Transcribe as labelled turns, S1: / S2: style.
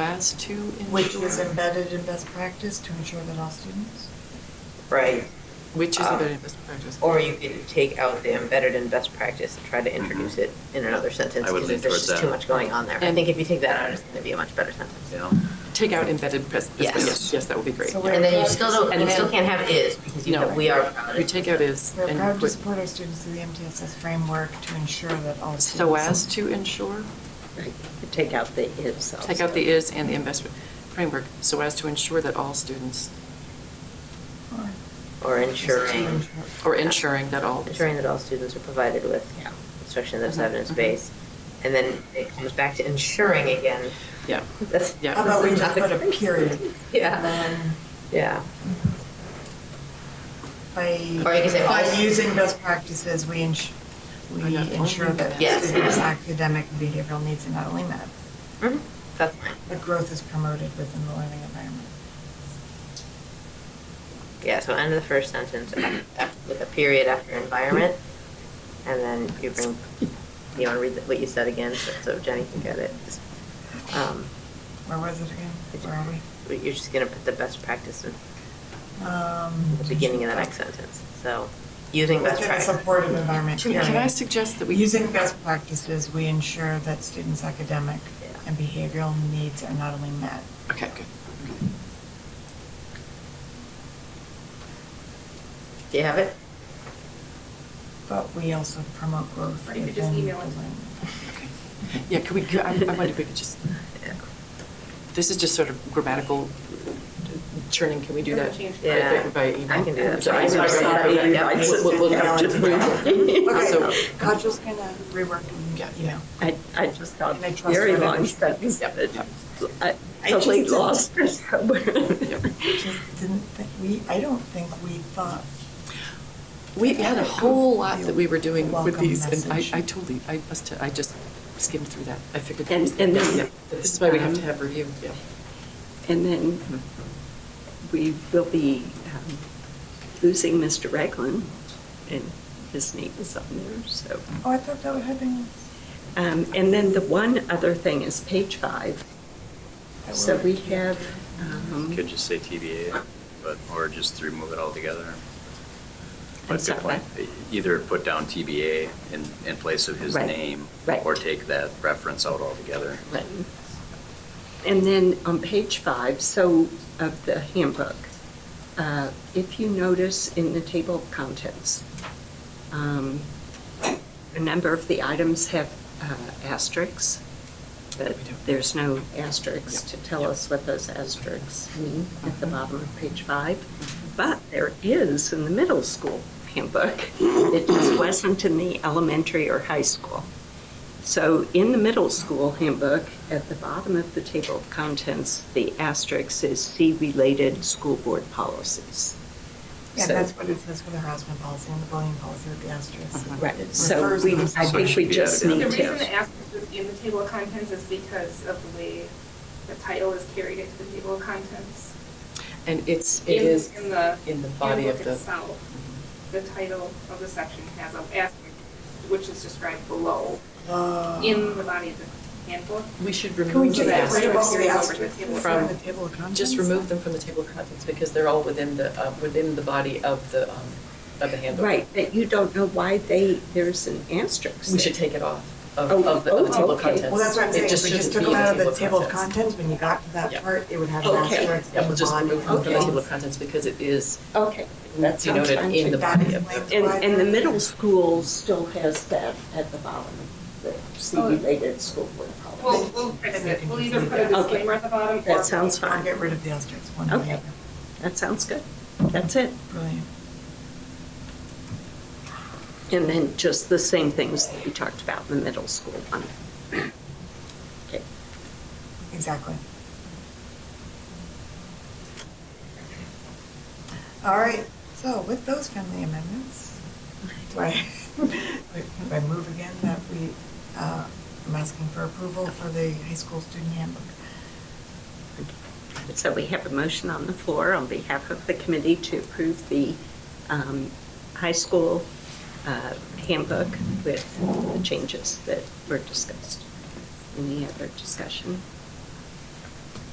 S1: that's two. in-
S2: Which is embedded in best practice to ensure that all students.
S3: right?
S1: Which is
S3: um,
S1: embedded best practice.
S3: Or you could take out the embedded in best practice and try to introduce it in another sentence.
S4: Mm-hmm. I
S3: because
S4: would lean
S3: There's
S4: towards
S3: just too
S4: that.
S3: much going on there. I
S1: And-
S3: think if you take that out, it's going to be a much better sentence.
S4: Yeah.
S1: Take out embedded best, best-
S3: Yes.
S1: yes, yes, that would be great.
S2: So
S1: yeah.
S3: And then you still don't,
S1: And
S3: you still
S1: then-
S3: can't have is because you
S1: No.
S3: have, we are proud
S1: You
S3: of.
S1: take out is
S2: We're
S1: and you
S2: proud to
S1: put
S2: support our students through the MTSS framework to ensure that all students.
S1: so as to ensure,
S3: Take out the is.
S1: take out the is and the investment framework, so as to ensure that all students,
S2: Or-
S3: Or
S2: To
S3: ensuring,
S2: ensure-
S1: or ensuring that all.
S3: ensuring that all students are provided with instruction that's
S1: Mhm,
S3: evidence-based. And then it comes back to ensuring again.
S1: Yeah.
S3: That's.
S1: Yeah.
S2: How about we just put a period? And
S3: Yeah,
S2: then
S3: yeah.
S2: by.
S3: Or you can say
S2: By
S3: all-
S2: using best practices, we ensure,
S1: Or
S2: we
S1: not only
S2: ensure that
S3: Yes.
S2: students' academic and behavioral needs are not only met, Mm-hmm.
S3: Mhm, That's fine.
S2: but growth is promoted within the learning environment.
S3: Yeah, so end of the first sentence af- af- with a period after environment, and then you bring, you want to read what you said again, so- so Jenny can get it. Um,
S2: Where was it again? Where are we?
S3: but You're just going to put the best practice in
S2: Um,
S3: the beginning of the next sentence, so using best
S2: Within a
S3: practice.
S2: supportive environment.
S1: Can can I
S2: period.
S1: suggest that we?
S2: Using best practices, we ensure that students' academic
S3: Yeah.
S2: and behavioral needs are not only met.
S1: Okay, good.
S3: Do you have it?
S2: But we also promote growth.
S5: Or you could just
S2: within
S5: email it.
S2: the learning.
S1: Okay. Yeah, could we, could- I I wonder if we could just,
S3: Yeah.
S1: this is just sort of grammatical churning, can we do that?
S5: Change.
S3: Yeah,
S1: By email?
S3: I can do that.
S1: So I-
S3: I'm sorry.
S1: Okay, yeah,
S3: Yeah.
S1: we'll- we'll- we'll just- So-
S2: Okay, Kajal's gonna rework
S1: Yeah.
S2: and, you know.
S6: I, I just got
S2: And I trust
S6: very
S2: her that
S6: long
S2: it's-
S6: sentence,
S1: Yep.
S6: but I
S2: I
S6: totally
S2: just didn't-
S6: lost for somewhere.
S2: Just didn't think, we, I don't think we thought,
S1: We had a whole lot that we were doing with
S2: Welcome
S1: these, and I,
S2: message.
S1: I totally, I must, have- I just skimmed through that, I figured. that
S6: And-
S1: was-
S6: and then-
S1: yeah, This is why we have to
S6: um,
S1: have review, yeah.
S6: And then we will be um, losing Mr. Reglan, and his name is on there, so.
S2: oh, I thought that would have been.
S6: Um, And then the one other thing is page five.
S2: that
S6: So
S2: would-
S6: we have, um,
S4: Could just say TBA, but, or just remove it altogether.
S6: I'm
S4: But good
S6: sorry.
S4: point. Either put down TBA in, in place of his
S6: Right,
S4: name.
S6: right.
S4: Or take that reference out altogether.
S6: Right. And then on page five, so of the handbook, uh, if you notice in the table of contents, um, a number of the items have uh, asterisks, but
S1: We do.
S6: there's no asterisks
S1: Yep.
S6: to tell us what those asterisks mean at the bottom of page five. But there is in the middle school handbook. It just wasn't in the elementary or high school. So in the middle school handbook, at the bottom of the table of contents, the asterisk is see related school board policies.
S2: Yeah,
S6: So-
S2: that's what it says for the harassment policy and the bullying policy with the asterisks.
S6: Uh-huh. Right,
S2: It
S6: so
S2: refers
S6: we,
S2: themselves-
S6: I
S4: So it
S6: think
S4: should
S6: we
S4: be
S6: just
S4: added in.
S5: The
S6: need
S5: reason the
S6: to.
S5: asterisk is in the table of contents is because of the way the title is carried into the table of contents.
S1: And it's, it
S5: In-
S1: is
S5: In the.
S1: in the body of
S5: handbook
S1: the,
S5: itself, the title of the section has an asterisk, which is described below,
S2: Oh.
S5: in the body of the handbook.
S1: we should
S2: Can we
S1: remove
S2: do
S1: the
S2: that, right
S5: Right
S1: asterisks.
S5: above
S2: above the asterisks
S1: From-
S2: from the table of contents?
S1: Just remove them from the table of contents, because they're all within the, uh, within the body of the, um, of the handbook.
S6: Right, but you don't know why they, there's an asterisk.
S1: We should take it off of,
S6: Oh,
S1: of the, of the
S6: oh,
S1: table of
S6: okay.
S1: contents.
S2: Well, that's what I'm
S1: It
S2: saying, if we just
S1: shouldn't
S2: took
S1: be
S2: them
S1: in
S2: out of
S1: the
S2: the table of
S1: contents.
S2: contents, when you got to that
S1: Yeah.
S2: part, it would have an
S6: Okay.
S2: asterisk.
S1: Yeah, we'll just
S2: on
S1: remove
S2: it.
S1: them from the
S6: Okay.
S1: table of contents because it is
S6: Okay, that's sounds
S1: denoted
S6: fine.
S1: in the
S2: That
S1: body of the.
S2: explains
S6: And,
S2: why
S6: and the
S2: they're-
S6: middle school still has that at the bottom, the see related school board policies.
S5: We'll, we'll fix it, we'll either put a
S6: Okay.
S5: disclaimer at the bottom or.
S6: That sounds fine.
S2: Get rid of the asterisks, one way or the
S6: Okay,
S2: other.
S6: that sounds good. That's it.
S2: Brilliant.
S6: And then just the same things that we talked about in the middle school one. Okay.
S2: Exactly. All right, so with those friendly amendments, do I, do I move again that we, uh, I'm asking for approval for the high school student handbook?
S6: So we have a motion on the floor on behalf of the committee to approve the um, high school uh, handbook with the changes that were discussed. Any other discussion?